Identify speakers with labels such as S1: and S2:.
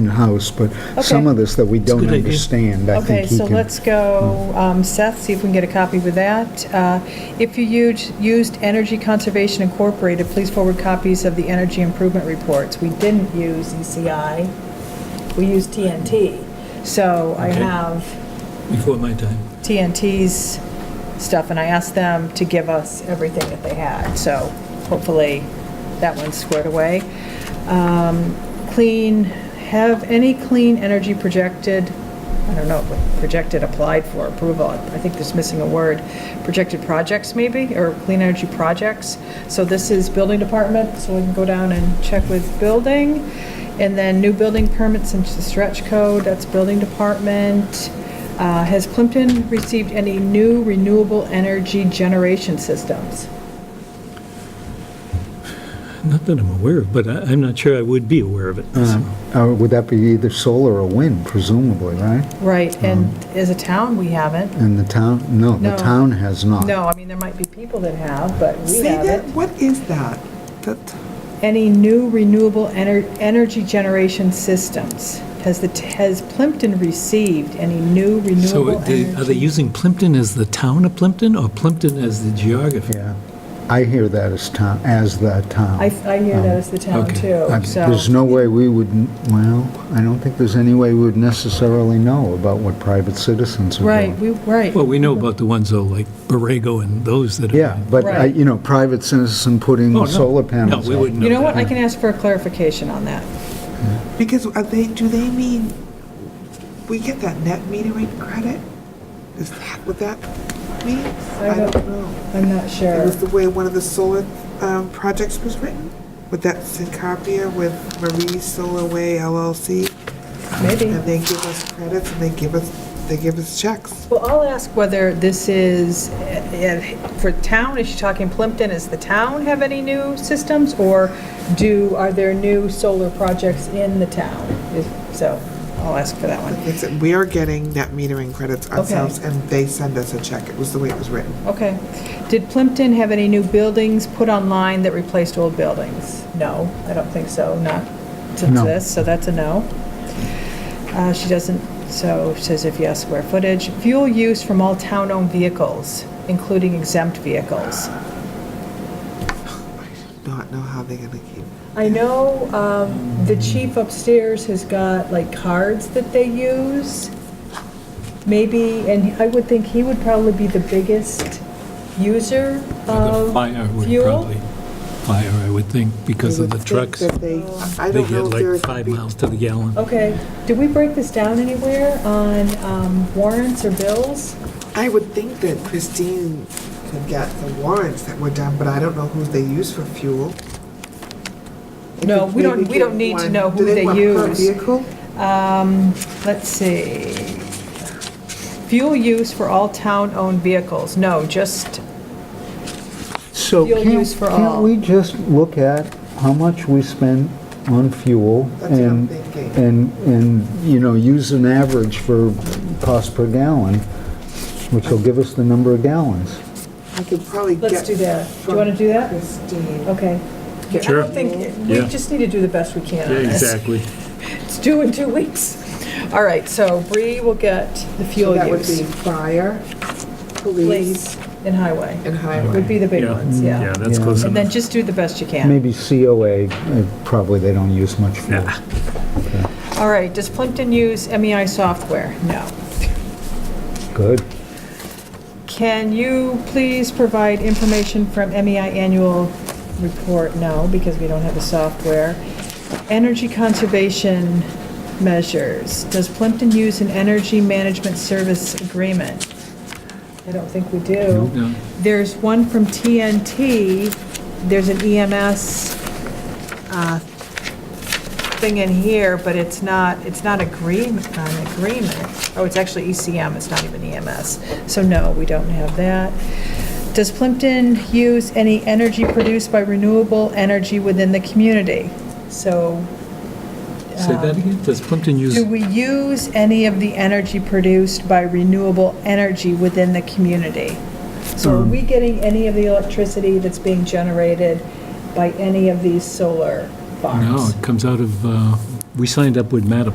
S1: in-house, but some
S2: Okay.
S1: of this that we don't
S3: good idea.
S1: understand, I
S2: Okay,
S1: think he
S2: so
S1: can... Hmm.
S2: let's go um, Seth, see if we can get a copy with that. Uh, If you used- used Energy Conservation Incorporated, please forward copies of the energy improvement reports. We didn't use ECI, we used TNT. So I
S3: Okay.
S2: have
S3: before my time.
S2: TNT's stuff, and I asked them to give us everything that they had, so hopefully that one's squared away. Um, Clean, have any clean energy projected, I don't know, but projected applied for approval, I think there's missing a word, projected projects maybe, or clean energy projects. So this is building department, so we can go down and check with building. And then new building permits and stretch code, that's building department. Uh, Has Plimpton received any new renewable energy generation systems?
S3: Not that I'm aware of, but I- I'm not sure I would be aware of it. so.
S1: Uh, Would that be either solar or wind, presumably, right?
S2: Right, and as a town, we haven't.
S1: And the town, no, the
S2: No.
S1: town has not.
S2: No, I mean, there might be people that have, but we
S4: Say that,
S2: haven't.
S4: what is that? That,
S2: Any new renewable ener- energy generation systems? Has the, t- has Plimpton received any new
S3: So
S2: renewable
S3: they- are they
S2: energy?
S3: using Plimpton as the town of Plimpton or Plimpton as the geography?
S1: Yeah. I hear that as town, as the town.
S2: I, I hear that as the town
S3: Okay.
S2: too,
S1: I-
S2: so.
S1: There's no way we would, n- well, I don't think there's any way we would necessarily know about what private citizens are
S2: Right,
S1: doing.
S2: we, right.
S3: Well, we know about the ones though, like Borrego and those that are.
S1: Yeah, but, I-
S2: Right.
S1: you know, private citizen putting
S3: Oh, no.
S1: solar panels
S3: No, we
S1: up.
S3: wouldn't know
S2: You know what,
S3: that.
S2: I can ask for a clarification on that.
S4: because are they, do they mean, we get that net metering credit? Is that what that means?
S2: I
S4: I
S2: don't-
S4: don't know.
S2: I'm not
S4: It
S2: sure.
S4: was the way one of the solar um, projects was written, with that Syncopia with Marie Solar Way LLC.
S2: Maybe.
S4: And they give us credits and they give us, they give us checks.
S2: Well, I'll ask whether this is, eh, eh, for town, is she talking Plimpton, does the town have any new systems? Or do, are there new solar projects in the town? Is- So I'll ask for that one.
S4: It's, we are getting net metering credits ourselves
S2: Okay.
S4: and they send us a check. It was the way it was written.
S2: Okay. Did Plimpton have any new buildings put online that replaced old buildings? No, I don't think so, not to
S1: No.
S2: this, so that's a no. Uh, She doesn't, so says if yes, square footage. Fuel use from all town-owned vehicles, including exempt vehicles.
S4: Not know how they're gonna keep.
S2: I know um, the chief upstairs has got like cards that they use, maybe, and I would think he would probably be the biggest user
S3: The
S2: of
S3: Fire would
S2: Uh, fuel.
S3: probably, fire, I would think, because of the trucks.
S4: That they, I
S3: They
S4: don't
S3: get
S4: know if
S3: like
S4: there's.
S3: five miles to the gallon.
S2: Okay, did we break this down anywhere on um, warrants or bills?
S4: I would think that Christine could get the warrants that were done, but I don't know who they use for fuel. They
S2: No,
S4: could
S2: we don't-
S4: maybe
S2: we don't
S4: get
S2: need to
S4: one-
S2: know who
S4: do
S2: they
S4: want per
S2: use.
S4: vehicle?
S2: Um, Let's see. Fuel use for all town-owned vehicles, no, just,
S1: So
S2: Fuel
S1: can't,
S2: use for all.
S1: can't we just look at how much we spend on fuel?
S4: That's what I'm
S1: and
S4: thinking.
S1: And, and, you know, use an average for cost per gallon, which will give us the number of gallons.
S4: I could probably get.
S2: let's do that. Do you
S4: from
S2: want to do that? Oh,
S4: Christine.
S2: Okay.
S3: Sure.
S2: I don't think, we
S3: Yeah.
S2: just need to do the best we can on
S3: Yeah,
S2: this.
S3: exactly.
S2: It's due in two weeks. All right, so Bree will get the
S4: So
S2: fuel
S4: that would be
S2: use.
S4: fire,
S2: Police
S4: police,
S2: and highway
S4: and
S2: would
S4: highway.
S2: be the big ones, yeah.
S3: that's
S1: Yeah.
S3: close
S2: And then
S3: enough.
S2: just do the best you can.
S1: Maybe COA, uh, probably they don't use much fuel.
S3: Nah.
S2: All right, does Plimpton use MEI software? No.
S1: Good.
S2: Can you please provide information from MEI annual report? No, because we don't have the software. Energy conservation measures. Does Plimpton use an energy management service agreement? I don't think we do.
S3: No.
S2: There's one from TNT, there's an E EMS uh, thing in here, but it's not, it's not agreement, an agreement. Oh, it's actually ECM, it's not even EMS. So no, we don't have that. Does Plimpton use any energy produced by renewable energy within the community? So
S3: Say that again? Does Plimpton use?
S2: do we use any of the energy produced by renewable energy within the community? So are we getting any of the electricity that's being generated by any of these solar
S3: No,
S2: farms?
S3: it comes out of uh, we signed up with Mattapan